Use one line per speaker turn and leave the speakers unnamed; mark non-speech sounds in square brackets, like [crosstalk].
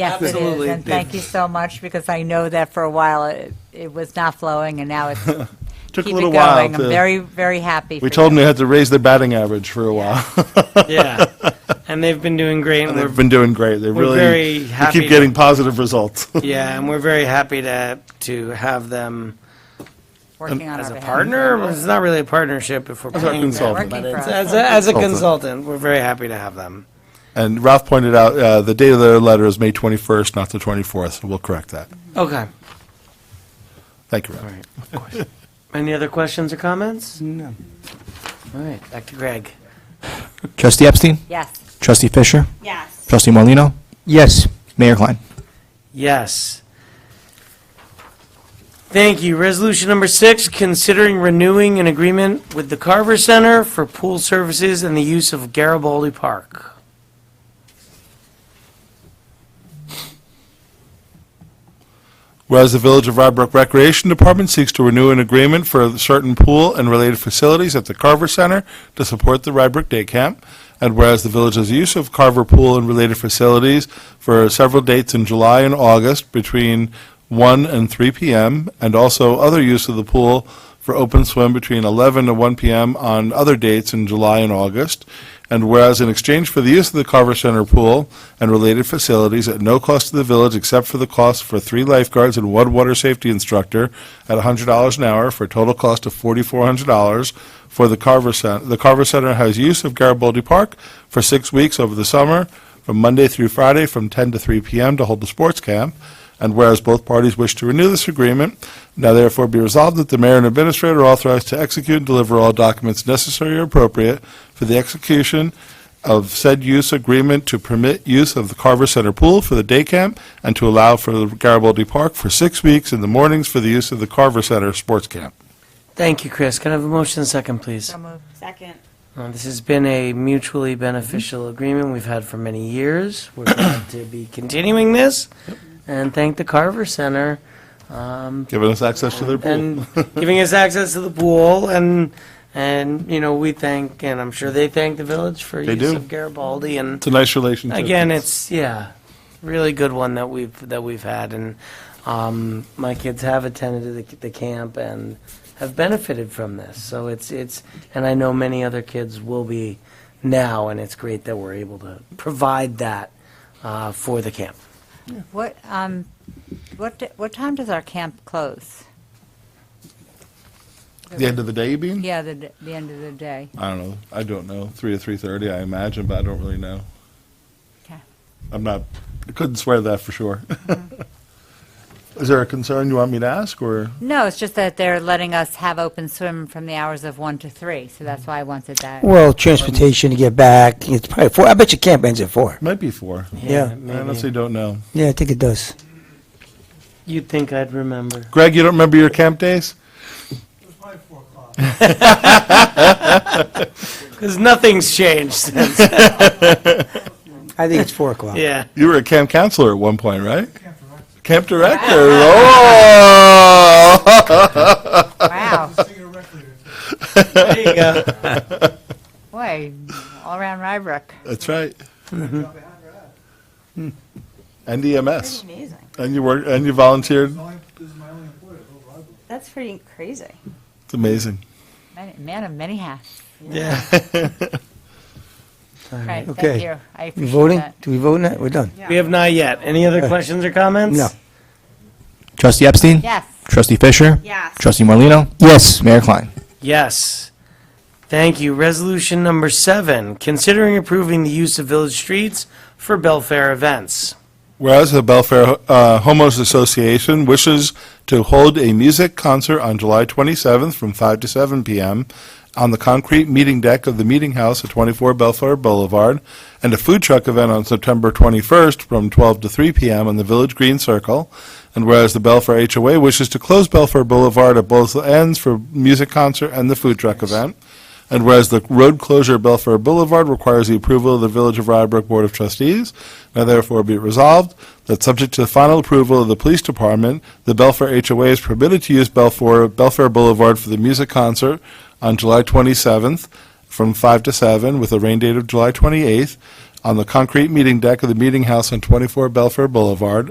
Yes, it is,
Absolutely.
and thank you so much, because I know that for a while it, it was not flowing, and now it's keep
[laughs] Took a
it
little
going.
while.
I'm
to-
very, very happy for
We told them
you.
they had to raise their batting average for a while.
yeah, and they've been doing great. And
They've
we're,
been doing great. They
we're
really
very
we
happy
keep getting positive results.
yeah, and [laughs] we're very happy to to have them
Working on
as
our
a
behalf.
partner. It's not really a partnership if we're
As our
paying them,
consultant.
but
Working for
it's,
us.
as a, as a
Consultant.
consultant, we're very happy to have them.
and Ralph pointed out uh, the date of their letter is May 21st, not the 24th. So we'll correct that.
Okay.
Thank you, Ralph.
All right. Of course. Any other questions or comments? No. All right. Back to Greg.
Trustee Epstein?
Yes.
Trustee Fisher?
Yes.
Trustee Morlino,
Yes.
Mayor Klein?
Yes. Thank you. Resolution number six, considering renewing an agreement with the Carver Center for pool services and the use of Garibaldi Park.
Whereas the Village of Rybrook Recreation Department seeks to renew an agreement for certain pool and related facilities at the Carver Center to support the Rybrook Day Camp, and whereas the village's use of Carver Pool and related facilities for several dates in July and August between 1 and 3 p.m., and also other use of the pool for open swim between 11 and 1 p.m. on other dates in July and August. And whereas in exchange for the use of the Carver Center pool and related facilities at no cost to the village except for the cost for three lifeguards and one water safety instructor at $100 an hour for a total cost of $4,400 for the Carver Center, the Carver Center has use of Garibaldi Park for six weeks over the summer from Monday through Friday from 10 to 3 p.m. to hold the sports camp. And whereas both parties wish to renew this agreement, now therefore be resolved that the mayor and administrator are authorized to execute and deliver all documents necessary or appropriate for the execution of said use agreement to permit use of the Carver Center Pool for the day camp and to allow for the Garibaldi Park for six weeks in the mornings for the use of the Carver Center Sports Camp.
Thank you, Chris. Can I have a motion and second, please?
So moved.
Second.
Uh, This has been a mutually beneficial agreement we've had for many years.
[coughs]
We're glad to be continuing this and thank the Carver Center um,
Giving us access to their pool.
and giving us access to the pool and, and, you know, we thank, and I'm sure they thank the village for
They
use
do.
of Garibaldi and
It's a nice relationship.
again, it's, yeah, really good one that we've, that we've had and um, my kids have attended the, the camp and have benefited from this. So it's, it's, and I know many other kids will be now and it's great that we're able to provide that uh, for the camp.
What, um, what, d- what time does our camp close?
The end of the day, you mean?
Yeah, the, d- the end of the day.
I don't know. I don't know. Three or three thirty, I imagine, but I don't really know.
Okay.
I'm not. I couldn't swear to that for sure. [laughs] Is there a concern you want me to ask, or
No, it's just that they're letting us have open swim from the hours of one to three, so that's why I wanted that.
Well, transportation to get back, it's probably four, I bet your camp ends at four.
might be four?
Yeah,
I honestly don't know.
yeah, I think it does.
You'd think I'd remember.
Greg, you don't remember your camp days?
Because nothing's changed since.
I think it's four
[laughs]
o'clock.
yeah.
You were a camp counselor at one point, right? Camp director. [laughs] Oh,
Wow,
There you go.
boy, all around Rybrook.
that's right. And EMS,
Amazing.
and you worked, and you volunteered.
That's pretty crazy.
It's amazing.
Man- Man of many hats.
[laughs] Yeah.
Right, thank
Okay.
you. I
We
appreciate
voting?
that.
Do we vote now? We're done.
We have not yet. Any other questions or comments?
No.
Trustee Epstein?
Yes,
Trustee Fisher?
Yes.
Trustee Morlino,
Yes.
Mayor Klein?
Yes. Thank you. Resolution number seven, considering approving the use of village streets for Belfair events.
Whereas the Belfair uh, Homos Association wishes to hold a music concert on July 27th from 5 to 7 p.m. on the concrete meeting deck of the Meeting House at 24 Belfair Boulevard, and a food truck event on September 21st from 12 to 3 p.m. on the Village Green Circle. And whereas the Belfair HOA wishes to close Belfair Boulevard at both ends for music concert and the food truck event. And whereas the road closure of Belfair Boulevard requires the approval of the Village of Rybrook Board of Trustees, now therefore be it resolved that subject to the final approval of the Police Department, the Belfair HOA is permitted to use Belfair, Belfair Boulevard for the music concert on July 27th from 5 to 7 with a rain date of July 28th. on the concrete meeting deck of the Meeting House on 24 Belfair Boulevard